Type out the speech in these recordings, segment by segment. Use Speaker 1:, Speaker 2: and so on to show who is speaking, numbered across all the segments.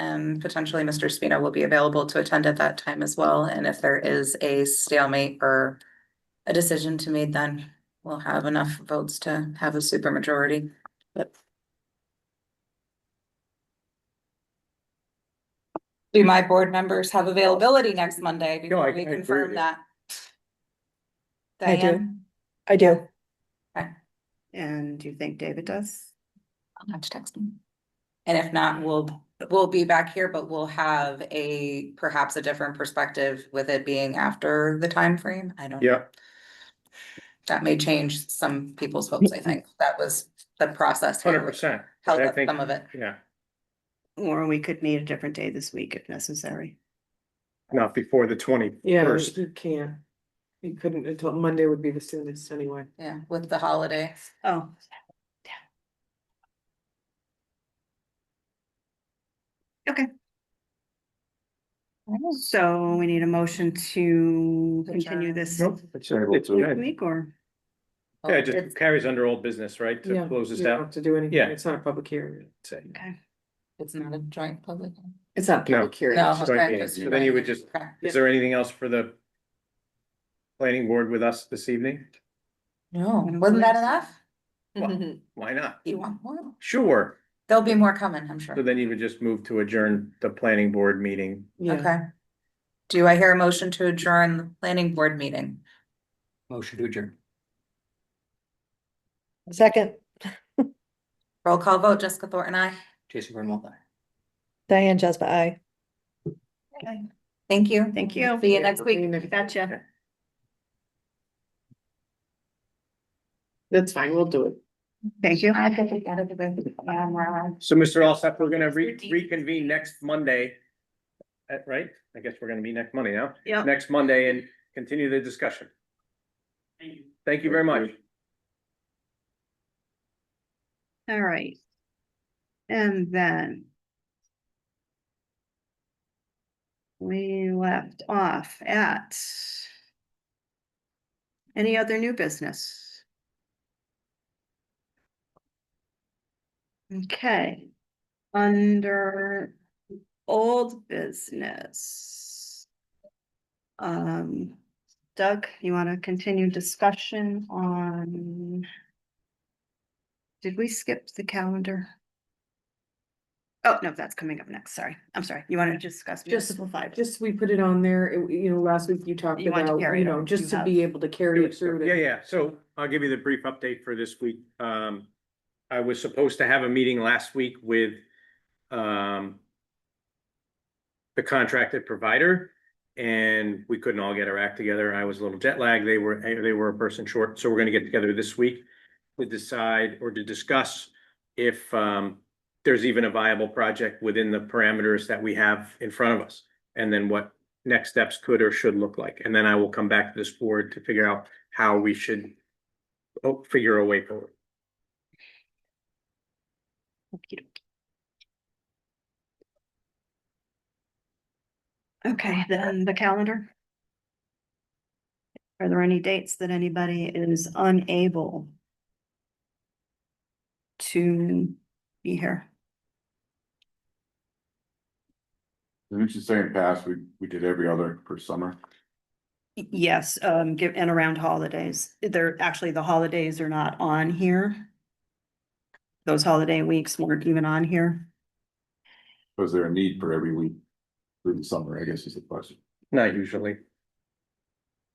Speaker 1: Um, potentially Mr. Spina will be available to attend at that time as well, and if there is a stalemate or a decision to made, then we'll have enough votes to have a supermajority, but. Do my board members have availability next Monday
Speaker 2: No,
Speaker 1: before
Speaker 2: I-
Speaker 1: we
Speaker 2: I agree with
Speaker 1: confirm
Speaker 2: you.
Speaker 1: that?
Speaker 3: I do.
Speaker 1: Diane,
Speaker 3: I do.
Speaker 4: And do you think David does?
Speaker 1: I'll have to text him. And if not, we'll, we'll be back here, but we'll have a, perhaps a different perspective with it being after the time frame. I don't. know.
Speaker 2: Yeah.
Speaker 1: That may change some people's hopes, I think. That was the process. here,
Speaker 2: Hundred
Speaker 1: which
Speaker 2: percent.
Speaker 1: Held
Speaker 2: I
Speaker 1: up
Speaker 2: think,
Speaker 1: some of it.
Speaker 2: yeah,
Speaker 4: Or we could meet a different day this week if necessary.
Speaker 2: not before the twenty
Speaker 3: Yeah,
Speaker 2: first.
Speaker 3: you can't. You couldn't until Monday would be the soonest anyway.
Speaker 1: Yeah, with the holiday.
Speaker 4: Oh. Okay. So we need a motion to continue this
Speaker 2: Nope. It's it's okay.
Speaker 4: week or?
Speaker 2: Yeah, it just carries under old business, right? To
Speaker 3: Yeah,
Speaker 2: close this
Speaker 3: you don't
Speaker 2: down.
Speaker 3: have To do anything,
Speaker 2: Yeah.
Speaker 3: it's not a public hearing.
Speaker 2: Say.
Speaker 1: It's not a joint public.
Speaker 5: It's not
Speaker 2: No.
Speaker 5: public hearing.
Speaker 1: No.
Speaker 5: it's just-
Speaker 2: Joint
Speaker 1: okay,
Speaker 2: meeting.
Speaker 1: just-
Speaker 2: So then you would just-
Speaker 1: Okay.
Speaker 2: Is there anything else for the planning board with us this evening?
Speaker 1: No, wasn't that enough?
Speaker 2: Well, Why not?
Speaker 1: You want more?
Speaker 2: Sure.
Speaker 1: There'll be more coming, I'm
Speaker 2: So
Speaker 1: sure.
Speaker 2: then you would just move to adjourn the planning board meeting.
Speaker 3: Yeah,
Speaker 1: Okay. Do I hear a motion to adjourn the planning board meeting?
Speaker 5: Motion to adjourn.
Speaker 6: Second,
Speaker 1: Roll call vote, Jessica Thornton, I.
Speaker 5: Jason Grunwald, aye.
Speaker 6: Diane Jasper, I.
Speaker 1: Thank you.
Speaker 4: Thank you.
Speaker 1: See you next week.
Speaker 4: Gotcha.
Speaker 3: that's fine, we'll do it.
Speaker 4: Thank you. Um,
Speaker 2: So Mr. Alsop, we're gonna re- reconvene next Monday. At, right? I guess we're gonna meet next Monday now.
Speaker 4: Yeah.
Speaker 2: Next Monday and continue the discussion. Thank you very much.
Speaker 4: All right. And then. We left off at. Any other new business? Okay, under old business. Um, Doug, you wanna continue discussion on? Did we skip the calendar? Oh, no, that's coming up next. Sorry. I'm sorry. You want to discuss
Speaker 3: Just-
Speaker 4: municipal five?
Speaker 3: Just, we put it on there, it- you know, last week you talked
Speaker 4: You wanted to
Speaker 3: about,
Speaker 4: carry
Speaker 3: you
Speaker 4: it
Speaker 3: know,
Speaker 4: over.
Speaker 3: just
Speaker 4: You
Speaker 3: to be able to carry it through. to-
Speaker 2: Yeah, yeah, so I'll give you the brief update for this week. Um, I was supposed to have a meeting last week with, um, the contracted provider, and we couldn't all get our act together. I was a little jet lagged. They were, they were a person short, so we're gonna get together this week to decide or to discuss if, um, there's even a viable project within the parameters that we have in front of us, and then what next steps could or should look like. And then I will come back to this board to figure out how we should oh, figure a way forward.
Speaker 4: Okay, then the calendar. Are there any dates that anybody is unable to be here?
Speaker 7: Didn't you say in past, we, we did every other per summer?
Speaker 4: Y- Yes, um, give, and around holidays. They're, actually, the holidays are not on here. Those holiday weeks weren't even on here.
Speaker 7: Was there a need for every week through the summer, I guess is the question.
Speaker 2: Not usually.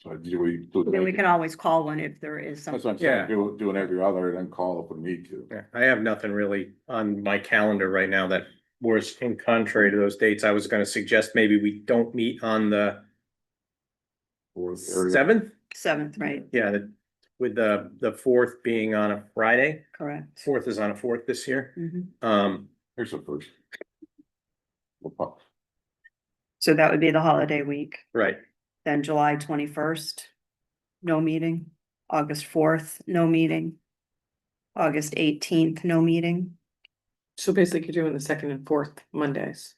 Speaker 7: So do we? do
Speaker 4: Then we
Speaker 7: like-
Speaker 4: can always call one if there is something.
Speaker 7: That's what I'm
Speaker 2: Yeah.
Speaker 7: saying, do, do an every other and then call if we need to.
Speaker 2: Yeah, I have nothing really on my calendar right now that was in contrary to those dates. I was gonna suggest maybe we don't meet on the
Speaker 7: Or- or-
Speaker 2: seventh.
Speaker 4: Seventh, right,
Speaker 2: Yeah, the- with the, the fourth being on a Friday.
Speaker 4: correct.
Speaker 2: Fourth is on a fourth this year.
Speaker 4: Mhm.
Speaker 2: Um,
Speaker 7: Here's the first. We'll pop-
Speaker 4: So that would be the holiday week,
Speaker 2: right.
Speaker 4: then July twenty-first, no meeting, August fourth, no meeting, August eighteenth, no meeting.
Speaker 3: So basically you're doing the second and fourth Mondays.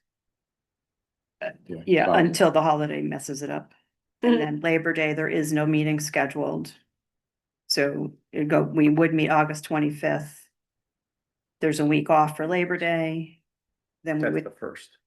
Speaker 4: Yeah,
Speaker 7: Well,
Speaker 4: until the holiday messes it up. And then Labor Day, there is no meeting scheduled. So it'd go, we would meet August twenty-fifth. There's a week off for Labor Day. Then we
Speaker 2: That's
Speaker 4: would,
Speaker 2: the first.